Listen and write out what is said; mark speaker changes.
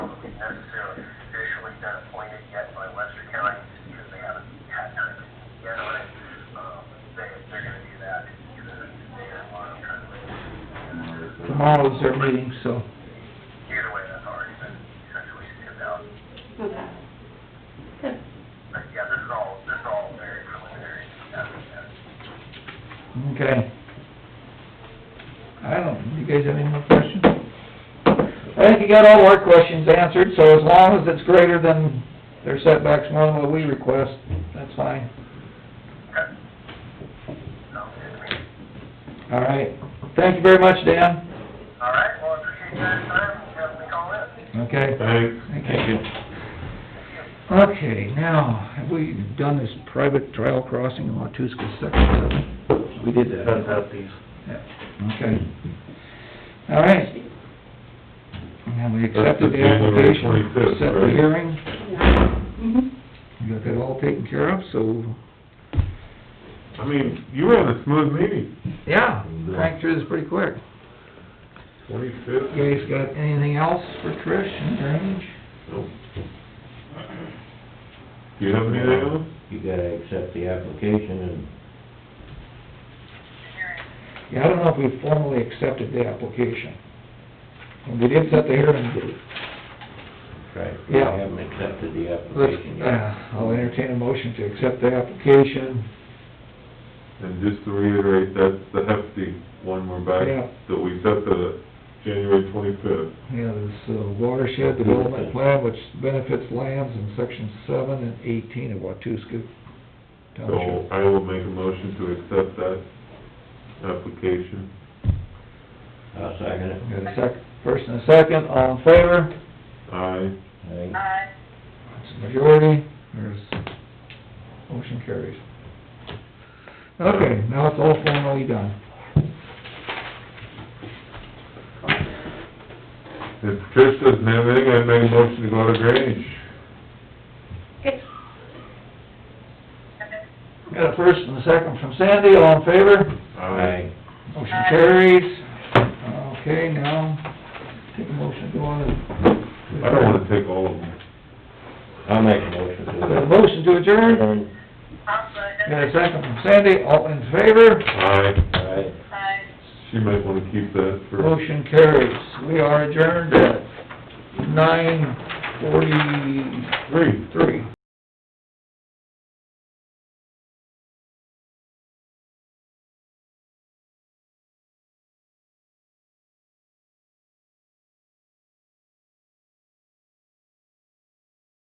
Speaker 1: not appointed yet by Webster County, because they haven't had time to get on it. Um, they, they're gonna do that either today or tomorrow, kind of.
Speaker 2: Tomorrow's their meeting, so
Speaker 1: Either way, that's already been essentially sent out.
Speaker 3: Okay. Good.
Speaker 1: But yeah, this is all, this is all very preliminary, as we said.
Speaker 2: Okay. I don't, you guys have any more questions? I think you got all our questions answered, so as long as it's greater than their setbacks more than what we request, that's fine.
Speaker 1: Okay. Sounds good to me.
Speaker 2: All right. Thank you very much, Dan.
Speaker 1: All right, well, I appreciate you guys' time, you have me call in.
Speaker 2: Okay.
Speaker 4: Thanks.
Speaker 2: Thank you. Okay, now, have we done this private trial crossing in Watuska section? haven't We We did that.
Speaker 4: That's that piece.
Speaker 2: Yeah, Okay. All right. And we accepted the
Speaker 4: That's the January
Speaker 2: application,
Speaker 4: 25th,
Speaker 2: set the
Speaker 4: right?
Speaker 2: hearing,
Speaker 3: Mhm.
Speaker 2: we got that all taken care of, so,
Speaker 4: I mean, you had a smooth meeting.
Speaker 2: yeah, cranked through this pretty quick.
Speaker 4: Twenty-fifth.
Speaker 2: You guys got anything else for Trish and drainage?
Speaker 4: Do you have any else?
Speaker 5: You gotta accept the application
Speaker 2: Yeah, I don't know if we formally accepted the application. We did set the hearing date.
Speaker 5: and, right, we
Speaker 2: Yeah.
Speaker 5: haven't accepted the
Speaker 2: Let's,
Speaker 5: application
Speaker 2: uh,
Speaker 5: yet.
Speaker 2: I'll entertain a motion to accept the application.
Speaker 4: And just to reiterate, that's the hefty one we're back,
Speaker 2: Yeah.
Speaker 4: that we set the January twenty-fifth.
Speaker 2: Yeah, this uh, watershed development plan which benefits lands in section seven and eighteen of Watuska
Speaker 4: So
Speaker 2: Township.
Speaker 4: I will make a motion to accept that application.
Speaker 5: I'll second it.
Speaker 2: Got a sec, first and a second, all in favor?
Speaker 4: Aye.
Speaker 5: Aye.
Speaker 3: Aye.
Speaker 2: It's a majority, there's, motion carries. Okay, now it's all formally done.
Speaker 4: If Trish doesn't have anything, I make a motion to go to drainage.
Speaker 2: Got a first and a second from Sandy, all in favor?
Speaker 5: Aye.
Speaker 2: Motion carries. Okay, now, take a motion to go on
Speaker 4: I don't wanna take all of them.
Speaker 5: I'll make a motion
Speaker 2: to, got a
Speaker 5: to
Speaker 2: motion to adjourn?
Speaker 5: adjourn.
Speaker 2: Got a second from Sandy, all in favor?
Speaker 4: Aye.
Speaker 5: Aye.
Speaker 4: She might wanna keep that for.
Speaker 2: Motion carries. We are adjourned at nine forty-three.
Speaker 4: Three.